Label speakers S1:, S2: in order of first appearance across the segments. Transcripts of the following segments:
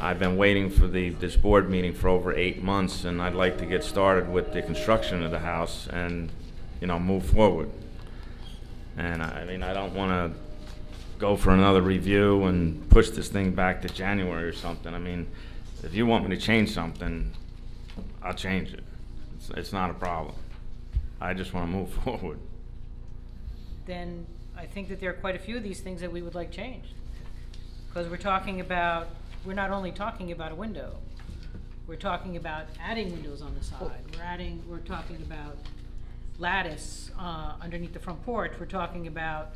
S1: I've been waiting for the, this board meeting for over eight months, and I'd like to get started with the construction of the house and, you know, move forward. And I I mean, I don't want to go for another review and push this thing back to January or something. I mean, if you want me to change something, I'll change it. It's, it's not a problem. I just want to move forward.
S2: then I think that there are quite a few of these things that we would like changed. Because we're talking about, we're not only talking about a window, we're talking about adding windows on the side, we're adding, we're talking about lattice uh, underneath the front porch, we're talking about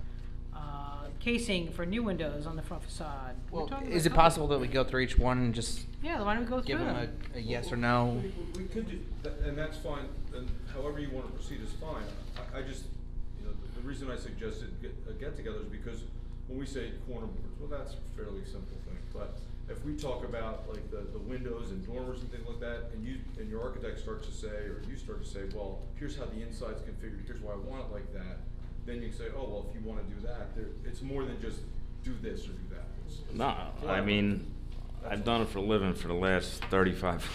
S2: uh, casing for new windows on the front facade. We're
S3: Well,
S2: talking
S3: is it
S2: about-
S3: possible that we go through each one and just
S2: Yeah, why don't we go through
S3: give them
S2: them?
S3: a, a yes or no?
S4: We- We we could do, tha- and that's fine, and however you wanna proceed is fine. I, I just, you know, the- the reason I suggested get, a get-together is because when we say corner boards, well, that's a fairly simple thing. But if we talk about like the, the windows and dormers and things like that, and you, and your architect starts to say, or you start to say, well, here's how the inside's configured, here's why I want it like that, then you can say, oh, well, if you wanna do that, there, it's more than just do this or do that. It's- it's-
S1: No, I mean, I've done it for a living for the last 35,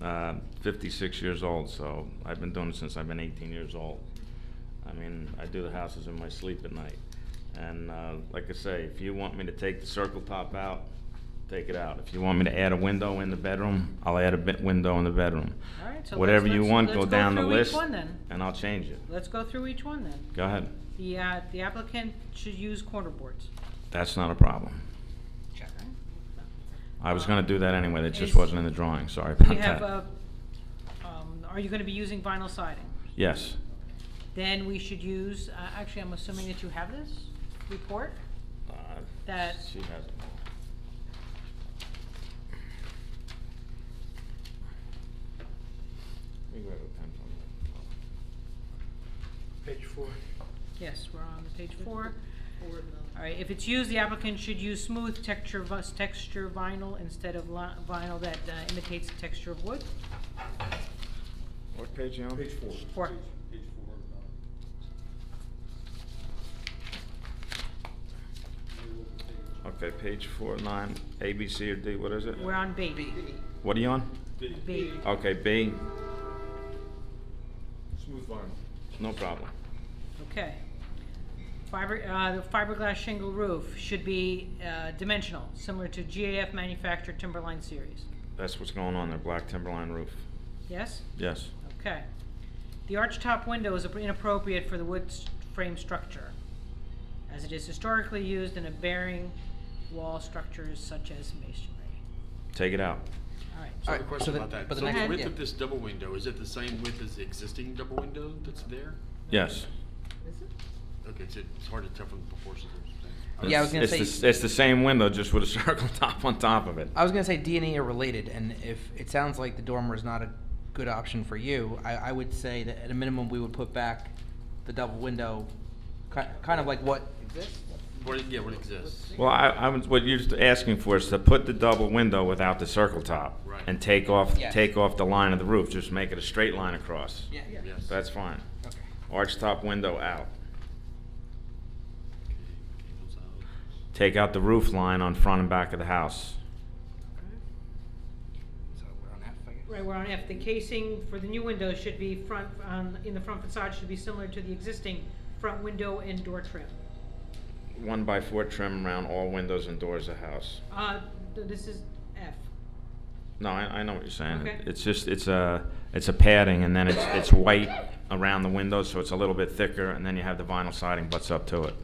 S1: uh, 56 years old, so I've been doing it since I've been 18 years old. I mean, I do the houses in my sleep at night. And uh, like I say, if you want me to take the circle top out, take it out. If you want me to add a window in the bedroom, I'll add a bit window in the bedroom.
S2: All right, so
S1: Whatever
S2: let's-
S1: you
S2: let's-
S1: want,
S2: let's
S1: go
S2: go
S1: down the
S2: through each
S1: list,
S2: one then.
S1: and I'll change it.
S2: Let's go through each one then.
S1: Go ahead.
S2: The, uh, the applicant should use corner boards.
S1: That's not a problem. I was gonna do that anyway, that just
S2: Is-
S1: wasn't in the drawing, sorry about
S2: We
S1: that.
S2: have, uh, um, are you gonna be using vinyl siding?
S1: Yes.
S2: Then we should use, uh, actually, I'm assuming that you have this report?
S1: Uh,
S2: That-
S1: She has it. We grab a pen from
S5: Page four.
S2: Yes, we're on page four. All right, if it's used, the applicant should use smooth texture, vus- texture vinyl instead of li- vinyl that uh, imitates the texture of wood.
S1: What page you on?
S4: Page four.
S2: Four.
S4: Page four.
S1: Okay, page four, nine, A, B, C, or D, what is it?
S2: We're on B.
S1: What are you on?
S2: B.
S1: Okay, B,
S4: Smooth vinyl.
S1: no problem.
S2: Okay. Fiber, uh, the fiberglass shingle roof should be, uh, dimensional, similar to GAF manufactured timberline series.
S1: That's what's going on there, black timberline roof.
S2: Yes?
S1: Yes,
S2: Okay. The arch top window is inappropriate for the wood s- frame structure, as it is historically used in a bearing wall structures such as masonry.
S1: take it out.
S2: All right.
S5: So
S3: All
S5: the
S3: right,
S5: question
S3: so the-
S5: about that.
S3: but the
S5: so
S2: next-
S5: the width
S3: yeah.
S5: of this double window is it the same width as the existing double window that's there?
S1: Yes.
S5: Okay, it's, it's hard to tell from the proportions. of what I'm saying.
S3: Yeah, I
S1: It's-
S3: was gonna
S1: it's
S3: say-
S1: the s- It's the same window, just with a circle top on top of it.
S3: I was gonna say D and E are related, and if it sounds like the dormer is not a good option for you, I, I would say that at a minimum we would put back the double window, ki- kind of like what exists.
S5: What it- yeah, what exists?
S1: Well, I, I was, what you're just asking for is to put the double window without the circle top.
S5: Right.
S1: And take off,
S3: Yes.
S1: take off the line of the roof, just make it a straight line across.
S3: Yeah.
S5: Yes.
S1: That's fine.
S3: Okay.
S1: Arch top window out.
S5: Okay, cables out.
S1: Take out the roof line on front and back of the house.
S3: So we're on F, I guess.
S2: Right, we're on F. The casing for the new window should be front, um, in the front facade should be similar to the existing front window and door trim.
S1: One by four trim around all windows and doors of house.
S2: Uh, th- this is F.
S1: No, I, I know what you're saying.
S2: Okay.
S1: It's just, it's a, it's a padding and then it's, it's white around the windows, so it's a little bit thicker and then you have the vinyl siding butts up to it.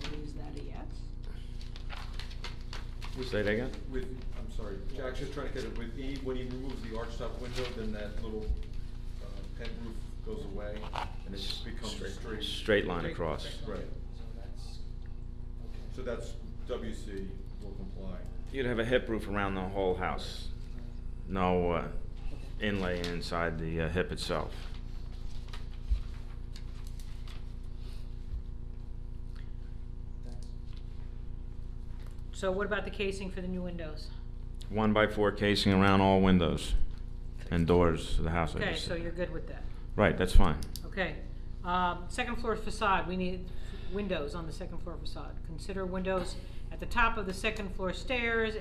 S2: So is that a yes?
S4: With-
S1: Say it again?
S4: With, I'm sorry, Jack's just trying to get it, with E, when he removes the arch top window, then that little uh, pent roof goes away, and it just becomes a straight.
S1: Straight line across.
S4: Right. So that's, WC will comply.
S1: You'd have a hip roof around the whole house. No uh, inlay inside the uh, hip itself.
S2: So what about the casing for the new windows?
S1: One by four casing around all windows and doors of the house. I
S2: Okay,
S1: just
S2: so
S1: said.
S2: you're good with that.
S1: Right, that's fine.
S2: Okay. Um, second floor facade, we need, windows on the second floor facade. Consider windows at the top of the second floor stairs